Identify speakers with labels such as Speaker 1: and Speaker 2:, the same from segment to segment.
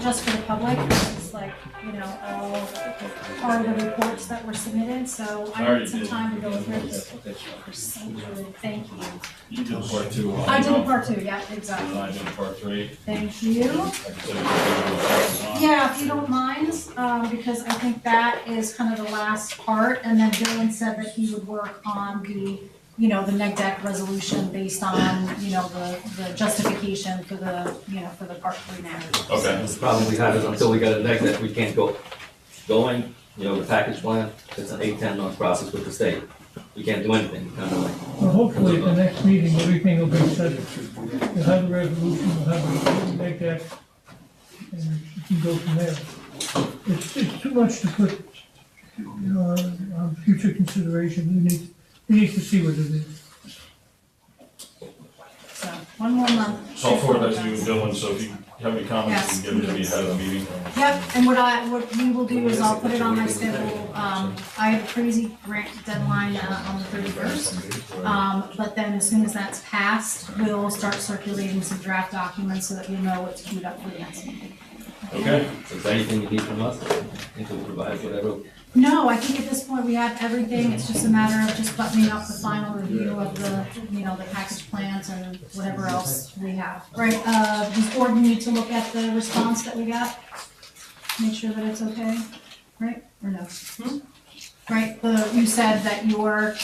Speaker 1: just for the public, it's like, you know, all, all the reports that were submitted, so I
Speaker 2: already
Speaker 1: need some
Speaker 2: did.
Speaker 1: time to go through this procedure, thank you.
Speaker 2: You did part two. uh,
Speaker 1: I did a part two, yeah, exactly,
Speaker 2: I did part three.
Speaker 1: thank you.
Speaker 2: I can say part one.
Speaker 1: Yeah, if you don't mind, um, because I think that is kind of the last part, and then Dylan said that he would work on the, you know, the neg deck resolution based on, you know, the, the justification for the, you know, for the part three matters.
Speaker 2: Okay.
Speaker 3: The problem we have is until we get a neg deck, we can't go going, you know, the package plan, it's an eight, ten month process with the state. We can't do anything, kind of like.
Speaker 4: Well, hopefully at the next meeting, everything will be settled. You'll have the resolution, you'll have the neg deck, and you can go from there. It's, it's too much to put, you know, on, on future consideration, we need, we need to see what it is.
Speaker 1: So, one more month.
Speaker 2: So I'll forward that to you, Dylan, so if you have any comments, you can give it to me ahead of the meeting.
Speaker 1: Yep, and what I, what we will do is I'll put it on my schedule, um, I have a crazy grant deadline, uh, on the thirty-first. Um, but then as soon as that's passed, we'll start circulating some draft documents so that we know what's queued up for the next meeting.
Speaker 2: Okay,
Speaker 3: So is there anything you need from us? I think we'll provide whatever.
Speaker 1: No, I think at this point we have everything, it's just a matter of just buttoning up the final review of the, you know, the package plans and whatever else we have. Right, uh, does Gordon need to look at the response that we got? Make sure that it's okay, right, or no? Right, the, you said that your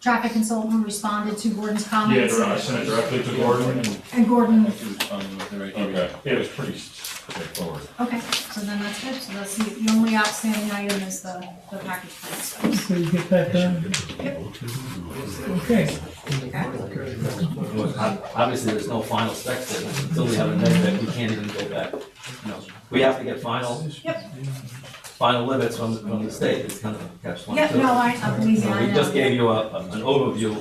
Speaker 1: traffic consultant responded to Gordon's
Speaker 2: yeah,
Speaker 1: comments.
Speaker 2: dir- I sent it directly to Gordon. and-
Speaker 1: And Gordon,
Speaker 2: Okay, yeah, it was pretty straightforward.
Speaker 1: okay, so then that's good, so that's the, the only outstanding item is the, the package plan stuff.
Speaker 4: So you get that done. Okay,
Speaker 3: You know, ob- Obviously, there's no final spec there, but until we have a neg deck, we can't even go back. You know, We have to get final.
Speaker 1: Yep.
Speaker 3: Final limits from, from the state, it's kind of a catch one.
Speaker 1: Yep,
Speaker 3: too.
Speaker 1: no, I, I'm
Speaker 3: So
Speaker 1: easy, I
Speaker 3: We just
Speaker 1: know.
Speaker 3: gave you a, an overview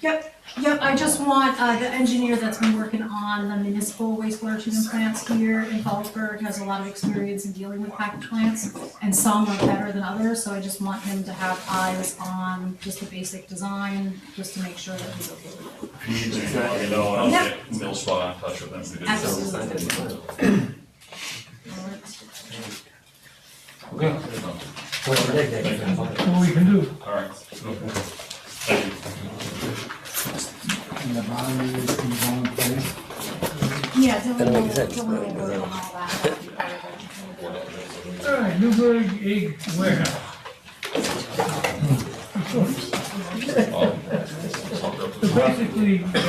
Speaker 1: Yep, yep, I just want, uh, the engineer that's been working on the municipal wastewater treatment plants here in Fallsburg has a lot of experience in dealing with package plants, and some are better than others, so I just want him to have eyes on just the basic design, just to make sure that he's okay with it.
Speaker 2: If you need anything, let me know, and I'll get Mill Spot in touch with them. to do so.
Speaker 1: Absolutely.
Speaker 2: Okay.
Speaker 4: what we can do.
Speaker 2: All right. Thank you.
Speaker 5: And the bottom is in the wrong place.
Speaker 1: Yeah, Dylan will, Dylan will work on all that.
Speaker 4: All right, Newburgh Egg Warehouse. So basically, uh,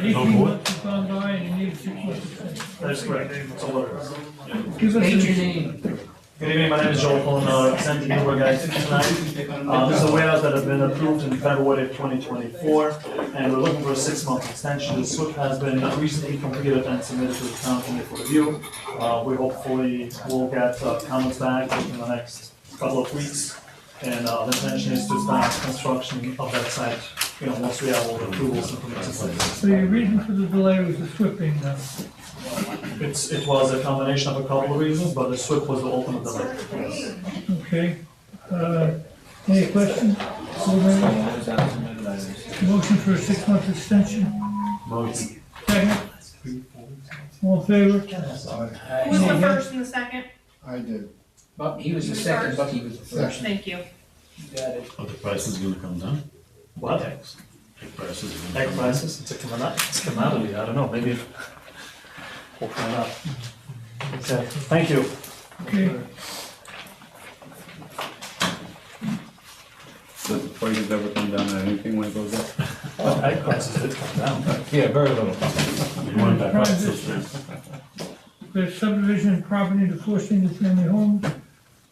Speaker 4: eighteen months has gone by and you need six months to finish.
Speaker 6: That's correct. It's all over.
Speaker 4: Give us a-
Speaker 6: Good evening, my name is Joel Cohen, uh, representing Newburgh Guys tonight. Uh, this is a warehouse that has been approved in February of twenty twenty-four, and we're looking for a six-month extension. The SWIP has been recently completed and submitted to the town committee for review. Uh, we hopefully will get uh, comments back in the next couple of weeks. And, uh, the intention is to start construction of that site, you know, once we have all the approvals and permits. in place.
Speaker 4: So your reason for the delay was the SWIP being done.
Speaker 6: It's, it was a combination of a couple of reasons, but the SWIP was the ultimate delay.
Speaker 4: Okay, uh, any questions? Alderman? Motion for a six-month extension? Second? All in favor?
Speaker 7: Who was the first and the second?
Speaker 5: I did.
Speaker 8: Buck, he was the second, Bucky was the first.
Speaker 5: Section.
Speaker 7: Thank you.
Speaker 8: You got it.
Speaker 9: Oh, the price is gonna come down?
Speaker 6: What?
Speaker 9: The price is gonna
Speaker 6: Egg
Speaker 9: come down?
Speaker 6: prices? It's a commodity, it's a commodity, I don't know, maybe. We'll find out. Okay, thank you.
Speaker 4: Okay,
Speaker 9: Does the prices ever come down on anything when it goes up?
Speaker 6: Egg prices did come down.
Speaker 9: Yeah, very little. You want that price
Speaker 4: Transition. the subdivision property to four single-family homes,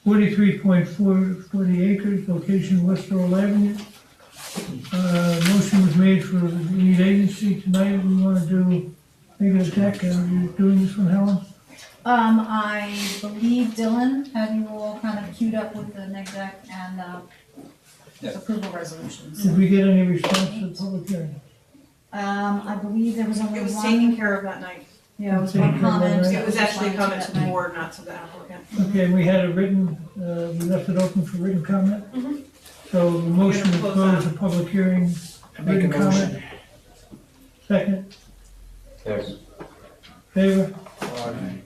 Speaker 4: forty-three point four, forty acres, location West Earl Avenue. Uh, motion was made for the lead agency tonight, we wanna do, make it a deck, are you doing this one, Helen?
Speaker 1: Um, I believe Dylan had you all kind of queued up with the neg deck and, uh, approval resolutions.
Speaker 4: Did we get any response to the public hearing?
Speaker 1: Um, I believe there was only
Speaker 7: It was
Speaker 1: one,
Speaker 7: taken care of that night.
Speaker 1: yeah, it was one comment.
Speaker 7: It was actually a comment to the
Speaker 1: that night.
Speaker 7: board, not to the applicant.
Speaker 4: Okay, and we had a written, uh, we left it open for written comment?
Speaker 7: Mhm.
Speaker 4: So the motion to
Speaker 7: We're gonna close
Speaker 4: close the public hearing,
Speaker 8: Make a
Speaker 4: written comment,
Speaker 8: motion.
Speaker 4: second,
Speaker 3: There's
Speaker 4: favor,
Speaker 8: All right.